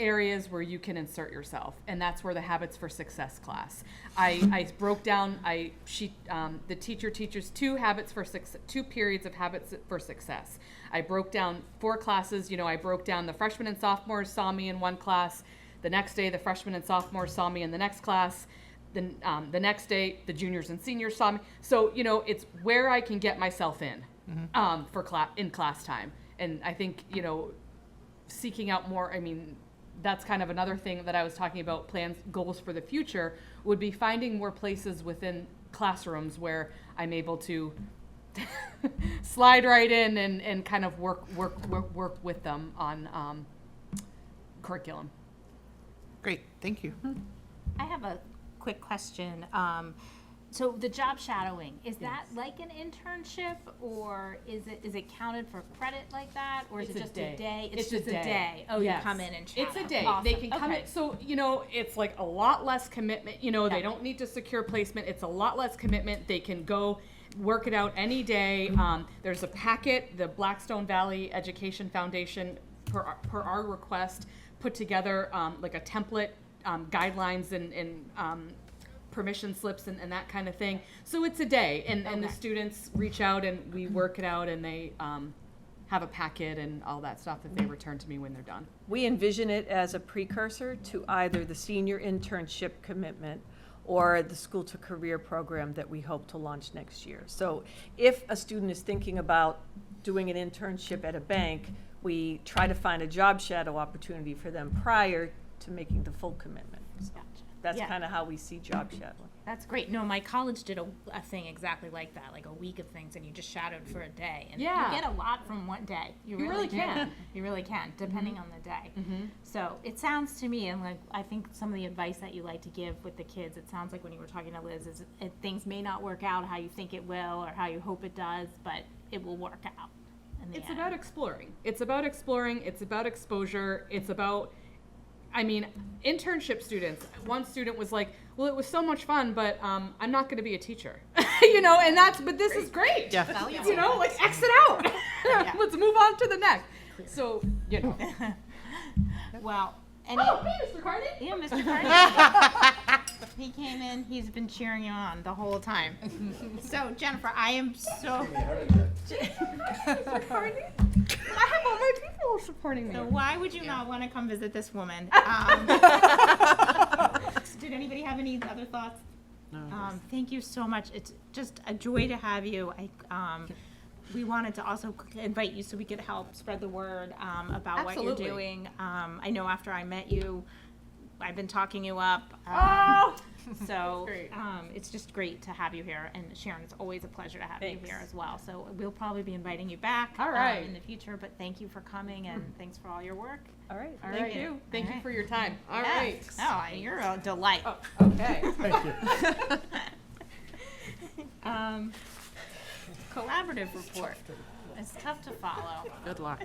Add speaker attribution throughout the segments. Speaker 1: areas where you can insert yourself, and that's where the Habits for Success class. I, I broke down. I she um, the teacher teaches two habits for six two periods of habits for success. I broke down four classes. You know, I broke down the freshmen and sophomores saw me in one class. The next day, the freshmen and sophomores saw me in the next class. Then um, the next day, the juniors and seniors saw me. So you know, it's where I can get myself in um, for class in class time. And I think you know, seeking out more. I mean, that's kind of another thing that I was talking about. Plans, goals for the future would be finding more places within classrooms where I'm able to slide right in and, and kind of work work work work with them on um, curriculum.
Speaker 2: Great, thank you.
Speaker 3: I have a quick question. Um, so the job shadowing, is that like an internship or is it, is it counted for credit like that? Or is
Speaker 1: It's
Speaker 3: it
Speaker 1: a
Speaker 3: just
Speaker 1: day.
Speaker 3: a day?
Speaker 1: It's a day.
Speaker 3: Oh, you
Speaker 1: Yes.
Speaker 3: come in and shadow?
Speaker 1: It's a day. They
Speaker 3: Awesome.
Speaker 1: can come
Speaker 3: Okay.
Speaker 1: in. So, you know, it's like a lot less commitment. You know, they
Speaker 3: Yeah.
Speaker 1: don't need to secure placement. It's a lot less commitment. They can go work it out any day.
Speaker 3: Mm-hmm.
Speaker 1: Um, there's a packet the Blackstone Valley Education Foundation, per, our- per our request, put together um, like a template, um, guidelines, and, and um, permission slips and, and that kind of thing. So it's a day, and, and the
Speaker 3: Okay.
Speaker 1: students reach out and we work it out, and they um, have a packet and all that stuff that they
Speaker 3: Mm-hmm.
Speaker 1: return to me when they're done.
Speaker 4: We envision it as a precursor to either the senior internship commitment or the school to career program that we hope to launch next year. So if a student is thinking about doing an internship at a bank, we try to find a job shadow opportunity for them prior to making the full commitment. So
Speaker 3: Gotcha.
Speaker 4: That's
Speaker 3: Yeah.
Speaker 4: kind of how we see job shadowing.
Speaker 3: That's great. No, my college did a, a thing exactly like that, like a week of things, and you just shadowed for a day. And
Speaker 1: Yeah.
Speaker 3: you get a lot from one day. You,
Speaker 1: You really
Speaker 3: do.
Speaker 1: can. Mm-hmm.
Speaker 3: You really can, depending on the day. So it sounds to me, and like I think some of the advice that you like to give with the kids, it sounds like when you were talking to Liz, is it, things may not work out how you think it will or how you hope it does, but it will work out. In the
Speaker 1: It's
Speaker 3: end.
Speaker 1: about exploring. It's about exploring. It's about exposure. It's about, I mean, internship students. One student was like, "Well, it was so much fun, but um, I'm not going to be a teacher," you know. And that's, but this is great.
Speaker 2: Yeah.
Speaker 1: You know, like exit out. Let's move on to the next. So you know.
Speaker 3: Well, any,
Speaker 1: oh, hey, Mr. Carney.
Speaker 3: yeah, Mr. Carney. he came in. He's been cheering you on the whole time. so Jennifer, I am so.
Speaker 1: I have all my people supporting me.
Speaker 3: So why would you not want to come visit this woman? Um, did anybody have any other thoughts? Um, thank you so much. It's just a joy to have you. I, um, we wanted to also invite you so we could help spread the word um, about what
Speaker 1: Absolutely.
Speaker 3: you're doing. Um, I know after I met you, I've been talking you up. Um,
Speaker 1: Oh,
Speaker 3: so
Speaker 1: great.
Speaker 3: um, it's just great to have you here. And Sharon, it's always a pleasure to have
Speaker 4: Thanks.
Speaker 3: you here as well. So we'll probably be inviting you back
Speaker 1: All
Speaker 3: um,
Speaker 1: right.
Speaker 3: in the future. But thank you for coming and thanks for all your work.
Speaker 4: All right.
Speaker 3: All
Speaker 1: thank
Speaker 3: right.
Speaker 1: you. Thank
Speaker 3: All
Speaker 1: you
Speaker 3: right.
Speaker 1: for your time. All right.
Speaker 3: Yes. Oh, you're a delight.
Speaker 1: Okay.
Speaker 3: Um, collaborative report. It's tough to follow.
Speaker 2: Good luck.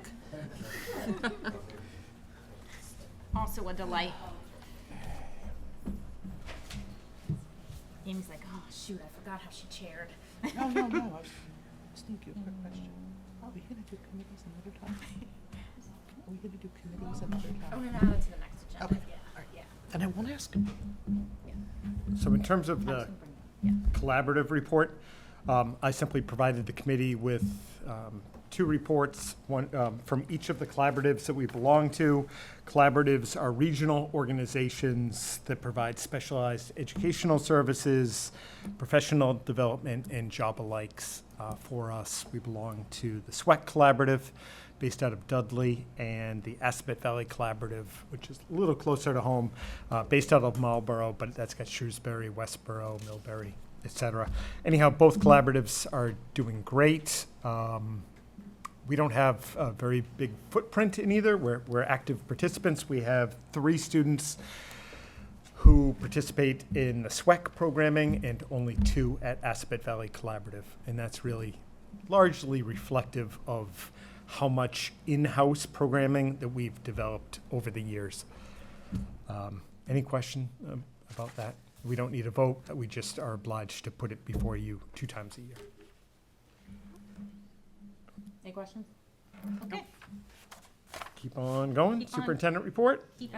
Speaker 3: Also a delight. Amy's like, oh shoot, I forgot how she chaired.
Speaker 2: No, no, no, I was just thinking, a quick question. Are we gonna do committees another time? Are we gonna do committees another
Speaker 3: Oh
Speaker 2: time?
Speaker 3: no, no, that's the next agenda.
Speaker 2: Okay.
Speaker 3: Yeah, yeah.
Speaker 2: And I won't ask him.
Speaker 5: So in terms of the collaborative report, um, I simply provided the committee with um, two reports, one um, from each of the collaboratives that we belong to. Collaboratives are regional organizations that provide specialized educational services, professional development, and job alikes uh, for us. We belong to the SWEC Collaborative, based out of Dudley, and the Aspet Valley Collaborative, which is a little closer to home, uh, based out of Marlborough, but that's got Shrewsbury, Westboro, Millbury, et cetera. Anyhow, both collaboratives are doing great. Um, we don't have a very big footprint in either. We're, we're active participants. We have three students who participate in the SWEC programming and only two at Aspet Valley Collaborative. And that's really largely reflective of how much in-house programming that we've developed over the years. Um, Any question um, about that? We don't need a vote. We just are obliged to put it before you two times a year.
Speaker 3: Any questions? Okay.
Speaker 5: Keep on going.
Speaker 3: Keep on.
Speaker 5: Superintendent report?